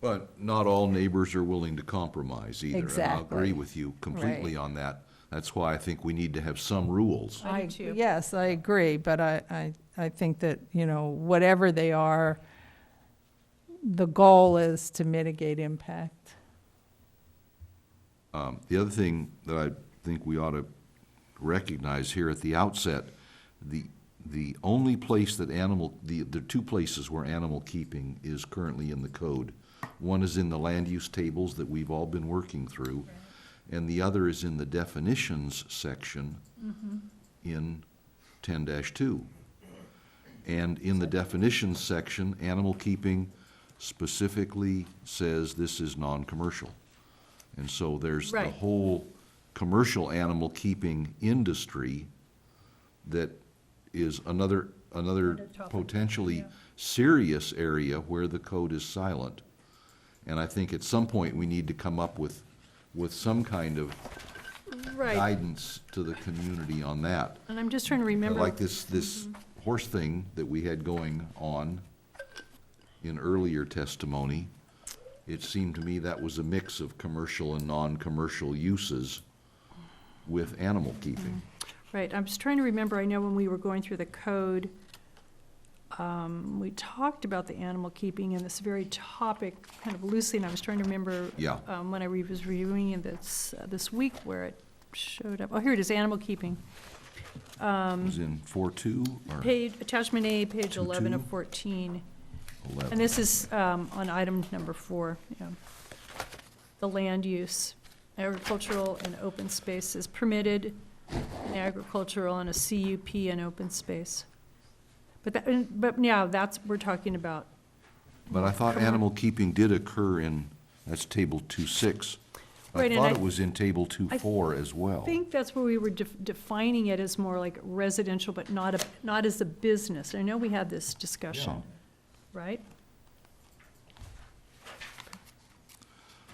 But not all neighbors are willing to compromise either. And I Exactly. agree with you completely on that. That's why I think we need to have some rules. I do I- too. Yes, I agree, but I, I, I think that, you know, whatever they are, the goal is to mitigate impact. Um, The other thing that I think we ought to recognize here at the outset, the, the only place that animal, the, the two places where animal keeping is currently in the code. One is in the land use tables that we've all been working through, and the other is in the definitions section in ten two. And in the definitions section, animal keeping specifically says this is non-commercial. And so there's the Right. whole commercial animal keeping industry that is another, another potentially serious area where the code is silent. And I think at some point, we need to come up with, with some kind of Right, guidance to the community on that. and I'm just trying to remember. Like this, this horse thing that we had going on in earlier testimony, it seemed to me that was a mix of commercial and non-commercial uses with animal keeping. Right, I'm just trying to remember, I know when we were going through the code, um, we talked about the animal keeping and this very topic kind of loosely, and I was trying to remember Yeah. um, when I re- was reviewing it this, uh, this week where it showed up, oh, here it is, animal keeping. It Um, was in four-two or Page, attachment A, page Two, eleven of two. fourteen. And eleven? this is um, on item number four, yeah. The land use, agricultural and open space is permitted, and agricultural and a CUP and open space. But that, and- but yeah, that's, we're talking about, But I thought animal keeping did occur in, that's table two-six. I Right, and thought I- it was in table two-four as well. I think that's where we were def- defining it as more like residential, but not, a not as a business. I know we had this discussion, right?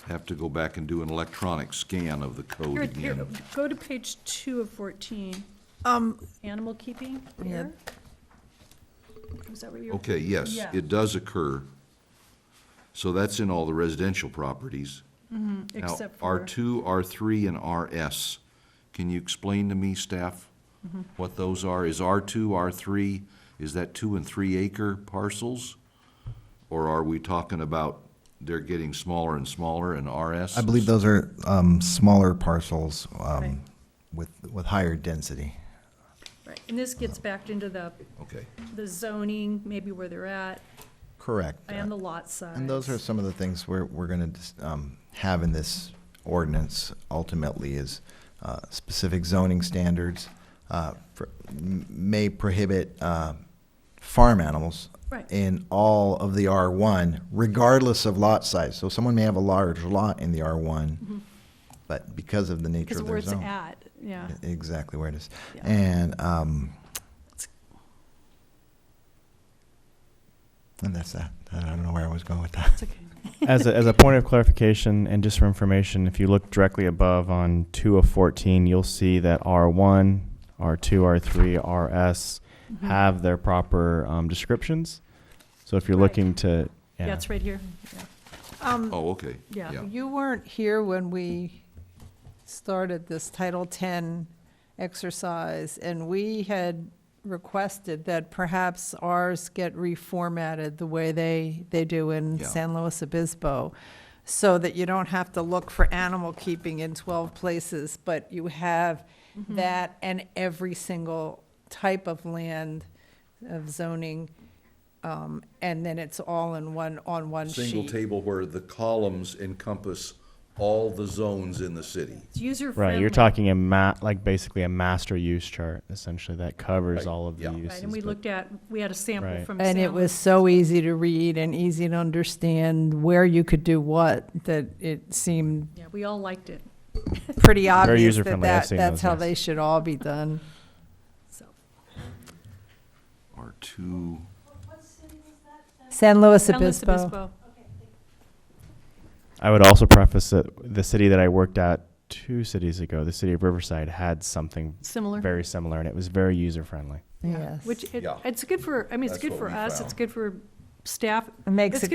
Have to go back and do an electronic scan of the code Here, here, again. go to page two of fourteen, Um, animal keeping Yeah. here? Is that what you're? Okay, yes, Yeah. it does occur. So that's in all the residential properties. Now, Except for. R two, R three, and RS. Can you explain to me, staff, what those are? Is R two, R three, is that two and three acre parcels? Or are we talking about they're getting smaller and smaller and RS? I believe those are um, smaller parcels Right. um, with, with higher density. Right, and this gets back into the, Okay, the zoning, maybe where they're at, Correct. and the lot size. And those are some of the things we're, we're going to have in this ordinance ultimately is uh, specific zoning standards uh, pr- m- may prohibit uh, farm animals Right. in all of the R1, regardless of lot size. So someone may have a large lot in the R1, but because of the nature Because of where it's their zone. at, yeah. Exactly where it is. Yeah. And, um, and that's that. I don't know where I was going with that. It's okay. as a, as a point of clarification and just for information, if you look directly above on two of fourteen, you'll see that R one, R two, R three, RS Mm-hmm. have their proper um, descriptions. So if you're Right. looking to, yeah. Yeah, it's right here, yeah. oh, okay. Yeah. You weren't here when we started this Title X exercise, and we had requested that perhaps ours get reformatted the way they, they do in Yeah. San Luis Obispo, so that you don't have to look for animal keeping in 12 places, but you have that and every single type of land of zoning, um, and then it's all in one, on one sheet. Single table where the columns encompass all the zones in the city. It's user friendly. right, you're talking a ma- like basically a master use chart essentially that Right, covers all of the yeah. Right, uses. Right, and we but- looked at, we had a sample Right. from. And it Sam. was so easy to read and easy to understand where you could do what, that it seemed Yeah, we all liked it, pretty obvious that user-friendly, I've that, seen that's those, how yes. they should all be done. so. R two, San Luis San Luis Obispo. I would also preface that the city that I worked at two cities ago, the city of Riverside, had something Similar. very similar, and it was very user friendly. Yeah, Yes. Which, it, Yeah. it's good for, I mean, it's That's good what for we us, found. it's good for staff, It makes It's it